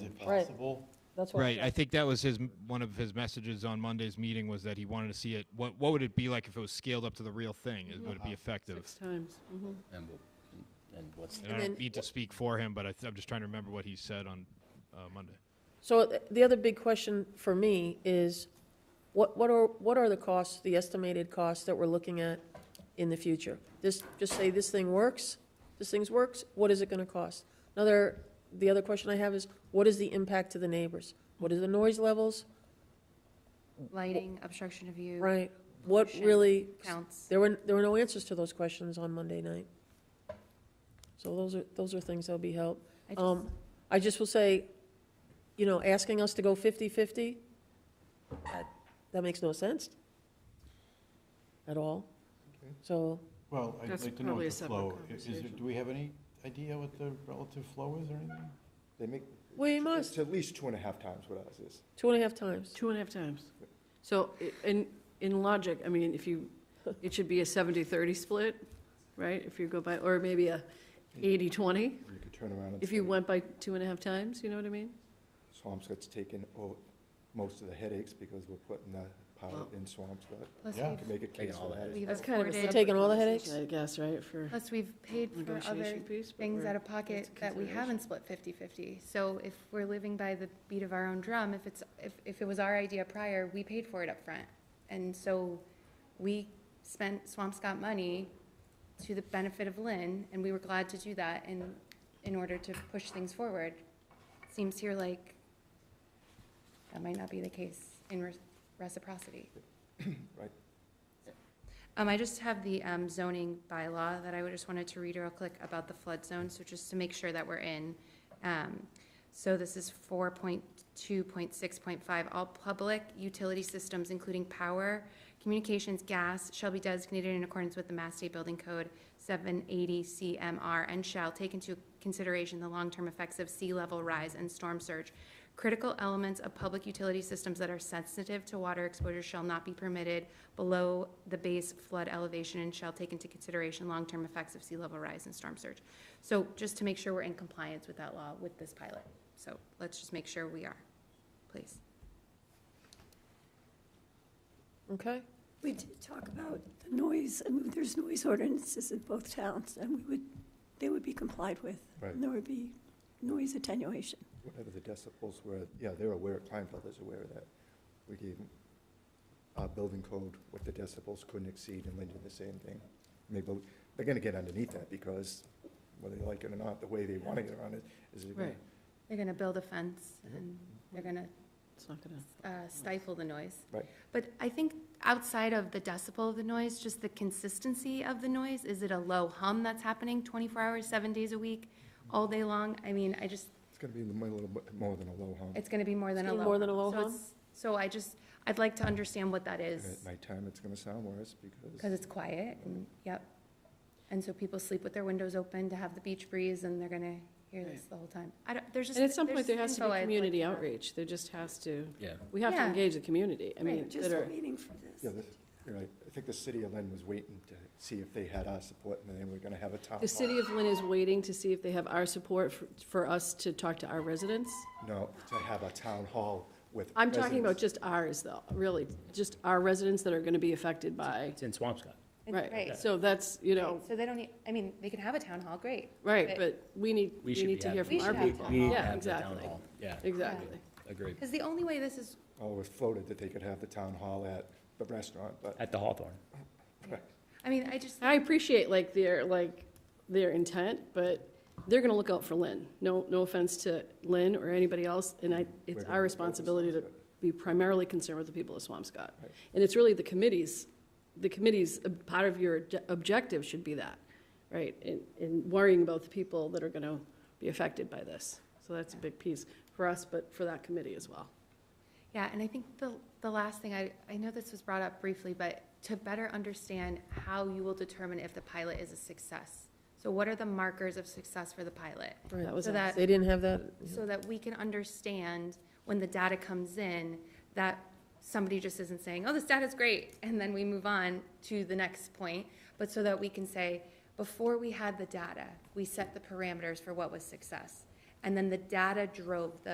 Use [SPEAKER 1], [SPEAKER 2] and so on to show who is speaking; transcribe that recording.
[SPEAKER 1] Right.
[SPEAKER 2] possible.
[SPEAKER 1] That's what.
[SPEAKER 3] Right. I think that was his one of his messages on Monday's meeting was that he wanted to see it. What What would it be like if it was scaled up to the real thing? Is- Would it be effective?
[SPEAKER 4] Uh-huh. Six times. Mhm.
[SPEAKER 5] And, we'll- and what's,
[SPEAKER 3] And I
[SPEAKER 4] And
[SPEAKER 3] don't
[SPEAKER 4] then-
[SPEAKER 3] need to speak for him, but I th- I'm just trying to remember what he said on uh, Monday.
[SPEAKER 4] So th- the other big question for me is, what, what are, what are the costs, the estimated costs that we're looking at in the future? This, just say this thing works, this thing's works, what is it gonna cost? Another, the other question I have is, what is the impact to the neighbors? What is the noise levels?
[SPEAKER 6] Lighting, obstruction of view.
[SPEAKER 4] Right, what
[SPEAKER 6] Pollution
[SPEAKER 4] really?
[SPEAKER 6] counts.
[SPEAKER 4] There were, there were no answers to those questions on Monday night. So those are, those are things that'll be help.
[SPEAKER 6] I just-
[SPEAKER 4] Um, I just will say, you know, asking us to go 50/50, that, that makes no sense at all. So,
[SPEAKER 2] Well, I'd
[SPEAKER 7] That's
[SPEAKER 2] like to know
[SPEAKER 7] probably
[SPEAKER 2] what
[SPEAKER 7] a
[SPEAKER 2] the
[SPEAKER 7] separate
[SPEAKER 2] flow, i- is it,
[SPEAKER 7] conversation.
[SPEAKER 2] do we have any idea what the relative flow is or anything?
[SPEAKER 8] They make,
[SPEAKER 4] we
[SPEAKER 8] it's
[SPEAKER 4] must,
[SPEAKER 8] at least two and a half times what ours is.
[SPEAKER 4] two and a half times.
[SPEAKER 7] Two and a half times. So i- in, in logic, I mean, if you, it should be a 70-30 split, right? If you go by, or maybe a 80-20,
[SPEAKER 8] You could turn around and
[SPEAKER 7] if you
[SPEAKER 8] say,
[SPEAKER 7] went by two and a half times, you know what I mean?
[SPEAKER 8] Swampscott's taken o- most of the headaches because we're putting the pilot
[SPEAKER 6] Oh.
[SPEAKER 8] in Swampscott.
[SPEAKER 6] Plus
[SPEAKER 2] Yeah.
[SPEAKER 8] You could make a
[SPEAKER 5] Taking
[SPEAKER 8] case
[SPEAKER 5] all
[SPEAKER 8] for
[SPEAKER 5] the
[SPEAKER 8] that.
[SPEAKER 6] we've, we've
[SPEAKER 7] That's kind of a
[SPEAKER 6] afforded-
[SPEAKER 4] We're taking all the headaches?
[SPEAKER 7] I guess, right, for
[SPEAKER 6] Plus, we've paid for other
[SPEAKER 7] negotiation piece. but
[SPEAKER 6] things
[SPEAKER 7] we're-
[SPEAKER 6] out of pocket
[SPEAKER 7] it's a
[SPEAKER 6] that we
[SPEAKER 7] consideration.
[SPEAKER 6] haven't split 50/50. So if we're living by the beat of our own drum, if it's, if, if it was our idea prior, we paid for it up front, And so we spent Swampscott money to the benefit of Lynn, and we were glad to do that in, in order to push things forward. Seems here like that might not be the case in re- reciprocity.
[SPEAKER 8] Right.
[SPEAKER 6] Um, I just have the, um, zoning bylaw that I would just wanted to read real quick about the flood zone, so just to make sure that we're in. Um, so this is four point two point six point five, all public utility systems, including power, communications, gas, shall be designated in accordance with the Mass State Building Code seven eighty CMR and shall take into consideration the long-term effects of sea level rise and storm surge. Critical elements of public utility systems that are sensitive to water exposure shall not be permitted below the base flood elevation and shall take into consideration long-term effects of sea level rise and storm surge. So just to make sure we're in compliance with that law with this pilot. So let's just make sure we are, please.
[SPEAKER 4] Okay,
[SPEAKER 9] We did talk about the noise, and there's noise ordinances in both towns, and we would, they would be complied with.
[SPEAKER 8] Right.
[SPEAKER 9] And there would be noise attenuation.
[SPEAKER 8] Whatever the decibels were, yeah, they're aware, Kleinfeld is aware of that. We gave them our building code, what the decibels couldn't exceed, and they did the same thing. Maybe, we- they're gonna get underneath that because whether they like it or not, the way they wanna get around it is they're gonna
[SPEAKER 7] Right.
[SPEAKER 6] They're gonna build a fence and they're gonna
[SPEAKER 7] It's not gonna,
[SPEAKER 6] uh, stifle the noise.
[SPEAKER 8] Right.
[SPEAKER 6] But I think outside of the decibel of the noise, just the consistency of the noise, is it a low hum that's happening twenty-four hours, seven days a week, all day long? I mean, I just,
[SPEAKER 8] It's gonna be a little bit more than a low hum.
[SPEAKER 6] it's gonna be more than
[SPEAKER 4] It's
[SPEAKER 6] a
[SPEAKER 4] gonna
[SPEAKER 6] low.
[SPEAKER 4] be more than a
[SPEAKER 6] hum.
[SPEAKER 4] low
[SPEAKER 6] So
[SPEAKER 4] hum?
[SPEAKER 6] it's- So I just, I'd like to understand what that
[SPEAKER 8] And
[SPEAKER 6] is,
[SPEAKER 8] at nighttime, it's gonna sound worse
[SPEAKER 6] because
[SPEAKER 8] because
[SPEAKER 6] it's quiet and, yep. And so people sleep with their windows open to have the beach breeze and they're gonna hear this the whole time. I don't, there's just.
[SPEAKER 7] and at some point,
[SPEAKER 6] there's
[SPEAKER 7] there has to
[SPEAKER 6] info
[SPEAKER 7] be
[SPEAKER 6] I'd like
[SPEAKER 7] community
[SPEAKER 6] to have.
[SPEAKER 7] outreach. There just has to,
[SPEAKER 5] yeah.
[SPEAKER 7] we have to
[SPEAKER 6] Yeah.
[SPEAKER 7] engage the community. I mean,
[SPEAKER 6] Right,
[SPEAKER 9] Just
[SPEAKER 7] that are,
[SPEAKER 9] a meeting for this.
[SPEAKER 8] Yeah, this, you know, I think the city of Lynn was waiting to see if they had our support, and then we're gonna have a town
[SPEAKER 7] the city of Lynn is waiting to see if they have our support for, for us to talk to our residents.
[SPEAKER 8] hall. No, to have a town hall with.
[SPEAKER 7] I'm talking about
[SPEAKER 8] residents.
[SPEAKER 7] just ours, though, really, just our residents that are gonna be affected by,
[SPEAKER 5] It's in Swampscott.
[SPEAKER 7] right.
[SPEAKER 6] Right.
[SPEAKER 7] So that's, you know,
[SPEAKER 6] Right, So they don't need, I mean, they could have a town hall, great.
[SPEAKER 7] right, but we need,
[SPEAKER 5] We
[SPEAKER 7] we
[SPEAKER 5] should be
[SPEAKER 7] need to hear from
[SPEAKER 5] having.
[SPEAKER 6] We
[SPEAKER 7] our
[SPEAKER 6] should have
[SPEAKER 7] people.
[SPEAKER 6] town hall.
[SPEAKER 7] Yeah,
[SPEAKER 5] have the town
[SPEAKER 7] exactly,
[SPEAKER 5] hall. Yeah,
[SPEAKER 7] exactly.
[SPEAKER 5] agreed.
[SPEAKER 6] Because the only way this is,
[SPEAKER 8] Oh, it floated that they could have the town hall at the restaurant, but
[SPEAKER 5] At the Hawthorne.
[SPEAKER 6] I mean, I just,
[SPEAKER 7] I appreciate like their, like, their intent, but they're gonna look out for Lynn. No, no offense to Lynn or anybody else, and I, it's our responsibility to be primarily concerned with the people of Swampscott. And it's really the committees, the committees, a part of your obje- objective should be that, right? In, in worrying about the people that are gonna be affected by this. So that's a big piece for us, but for that committee as well.
[SPEAKER 6] yeah, and I think the, the last thing, I, I know this was brought up briefly, but to better understand how you will determine if the pilot is a success. So what are the markers of success for the pilot?
[SPEAKER 7] That was
[SPEAKER 6] So
[SPEAKER 7] us.
[SPEAKER 6] that-
[SPEAKER 4] they didn't have that,
[SPEAKER 6] So that we can understand when the data comes in, that somebody just isn't saying, oh, this data's great, and then we move on to the next point. But so that we can say, before we had the data, we set the parameters for what was success. And then the data drove the